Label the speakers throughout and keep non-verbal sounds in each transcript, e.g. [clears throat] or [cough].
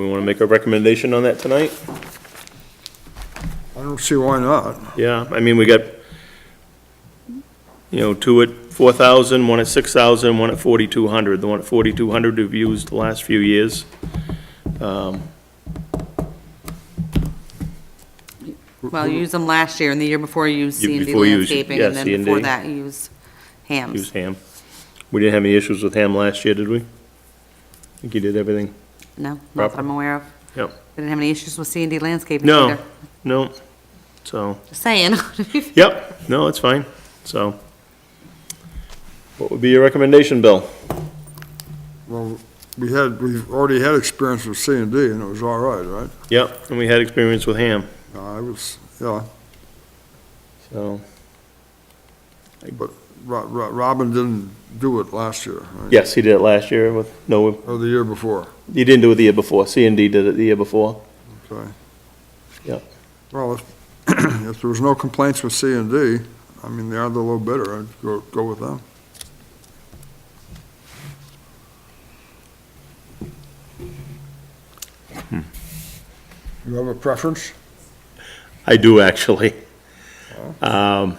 Speaker 1: We want to make a recommendation on that tonight?
Speaker 2: I don't see why not.
Speaker 1: Yeah, I mean, we got, you know, two at 4,000, one at 6,000, one at 4,200. The one at 4,200 we've used the last few years. Um,
Speaker 3: Well, you used them last year, and the year before you used
Speaker 1: You-
Speaker 3: C and D
Speaker 1: before you used-
Speaker 3: landscaping,
Speaker 1: yeah,
Speaker 3: and then
Speaker 1: C&D.
Speaker 3: before that you used
Speaker 1: Used
Speaker 3: hams.
Speaker 1: ham. We didn't have any issues with ham last year, did we? I think you did everything.
Speaker 3: No, not that I'm aware of.
Speaker 1: Yep.
Speaker 3: Didn't have any issues with C and D landscaping
Speaker 1: No,
Speaker 3: either.
Speaker 1: no, so,
Speaker 3: Just saying. [laughs]
Speaker 1: yep, no, it's fine, so. What would be your recommendation, Bill?
Speaker 2: Well, we had, we've already had experience with C and D, and it was all right, right?
Speaker 1: Yep, and we had experience with ham,
Speaker 2: Uh, I was, yeah,
Speaker 1: so.
Speaker 2: Ro- Ro- Robin didn't do it last year, right?
Speaker 1: Yes, he did it last year with, no,
Speaker 2: Or the year before,
Speaker 1: he didn't do it the year before, C and D did it the year before.
Speaker 2: okay?
Speaker 1: Yep.
Speaker 2: Well, if, [clears throat] if there was no complaints with C and D, I mean, they are the low bidder, I'd go, go with them. You have a preference?
Speaker 1: I do, actually. Um,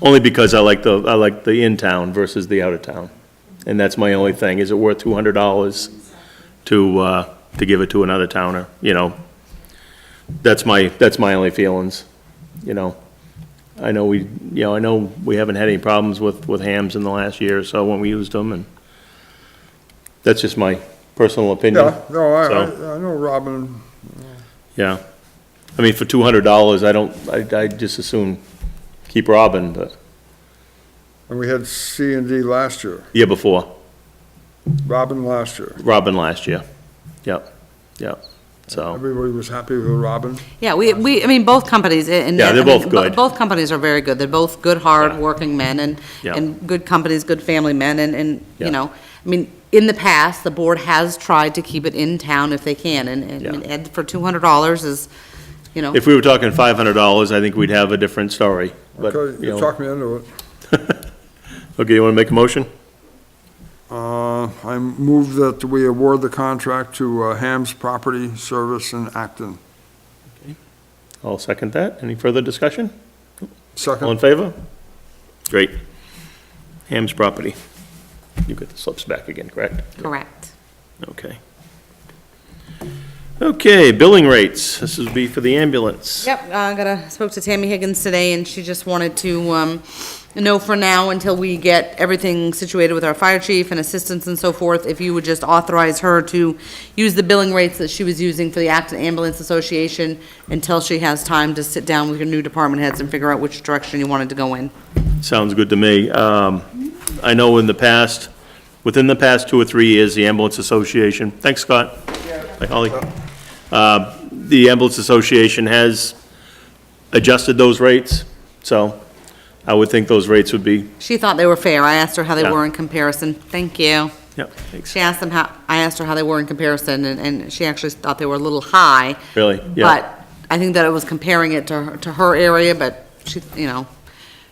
Speaker 1: Only because I like the, I like the in-town versus the out-of-town. And that's my only thing. Is it worth two hundred dollars to, uh, to give it to another towner, you know? That's my, that's my only feelings, you know? I know we, you know, I know we haven't had any problems with, with hams in the last year or so when we used them, and that's just my personal opinion.
Speaker 2: Yeah, no, I, I
Speaker 1: So-
Speaker 2: I know Robin
Speaker 1: Yeah. I mean, for two hundred dollars, I don't, I, I just assume keep Robin, but
Speaker 2: And we had C and D last year,
Speaker 1: year before,
Speaker 2: Robin last year.
Speaker 1: Robin last year. Yep, yep, so,
Speaker 2: Everybody was happy with Robin.
Speaker 3: Yeah, we, we, I mean, both companies, and.
Speaker 1: Yeah, they're
Speaker 3: I mean,
Speaker 1: both
Speaker 3: bo-
Speaker 1: good.
Speaker 3: Both companies are very good. They're both good,
Speaker 1: Yeah.
Speaker 3: hard-working men and,
Speaker 1: Yeah.
Speaker 3: and good companies, good family men, and, and,
Speaker 1: Yeah.
Speaker 3: you know, I mean, in the past, the board has tried to keep it in town if they can, and, and I mean,
Speaker 1: Yeah.
Speaker 3: Ed for two hundred dollars is, you know,
Speaker 1: if we were talking five hundred dollars, I think we'd have a different story, but,
Speaker 2: Okay,
Speaker 1: you
Speaker 2: you
Speaker 1: know.
Speaker 2: talked me into it.
Speaker 1: Okay, you wanna make a motion?
Speaker 2: Uh, I move that we award the contract to uh, Ham's Property Service in Acton.
Speaker 1: I'll second that. Any further discussion? All in
Speaker 2: Second,
Speaker 1: favor? Great. Ham's property. You get the slips back again, correct?
Speaker 3: correct.
Speaker 1: Okay. Okay, billing rates. This would be for the ambulance.
Speaker 3: Yep, uh, I got a, spoke to Tammy Higgins today, and she just wanted to, um, know for now, until we get everything situated with our fire chief and assistants and so forth, if you would just authorize her to use the billing rates that she was using for the Acton Ambulance Association until she has time to sit down with your new department heads and figure out which direction you wanted to go in.
Speaker 1: Sounds good to me. Um, I know in the past, within the past two or three years, the Ambulance Association, thanks, Scott. Hi, Holly. Uh, The Ambulance Association has adjusted those rates, so I would think those rates would be,
Speaker 3: She thought they were fair. I asked her how they
Speaker 1: Yeah.
Speaker 3: were in comparison. Thank you.
Speaker 1: yeah, thanks.
Speaker 3: She asked them how, I asked her how they were in comparison, and, and she actually thought they were a little high.
Speaker 1: Really? Yeah.
Speaker 3: But I think that it was comparing it to, her- to her area, but she, you know,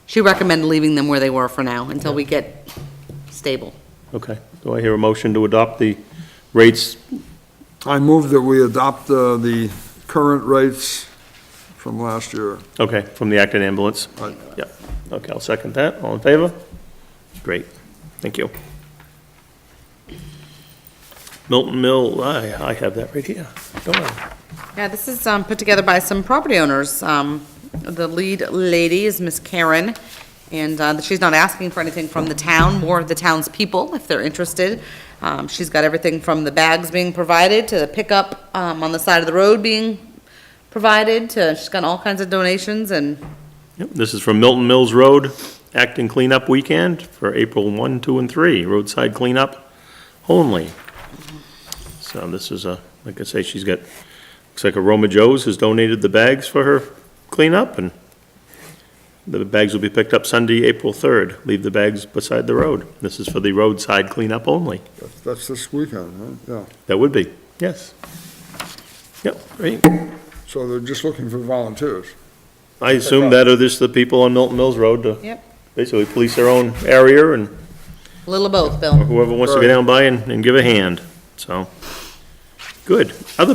Speaker 3: she recommended leaving them where they were for now, until we get stable.
Speaker 1: Okay. Do I hear a motion to adopt the rates?
Speaker 2: I move that we adopt uh, the current rates from last year.
Speaker 1: Okay, from the Acton Ambulance?
Speaker 2: Right.
Speaker 1: Yeah. Okay, I'll second that. All in favor? Great. Thank you. Milton Mill, I, I have that right here. Don't I?
Speaker 3: Yeah, this is, um, put together by some property owners. Um, the lead lady is Miss Karen, and, uh, she's not asking for anything from the town, more of the town's people, if they're interested. Um, she's got everything from the bags being provided, to the pickup, um, on the side of the road being provided, to, she's got all kinds of donations, and
Speaker 1: Yep, this is from Milton Mills Road, Acton Cleanup Weekend for April 1, 2, and 3, roadside cleanup only. So this is a, like I say, she's got, looks like Aroma Joe's has donated the bags for her cleanup, and the bags will be picked up Sunday, April 3rd. Leave the bags beside the road. This is for the roadside cleanup only.
Speaker 2: That's- That's this weekend, right? Yeah.
Speaker 1: That would be, yes. Yep, great.
Speaker 2: So they're just looking for volunteers.
Speaker 1: I assume that are just the people on Milton Mills Road to
Speaker 3: Yep.
Speaker 1: basically police their own area and
Speaker 3: a little of both, Bill.
Speaker 1: whoever wants to go down by and, and give a hand, so. Good. Other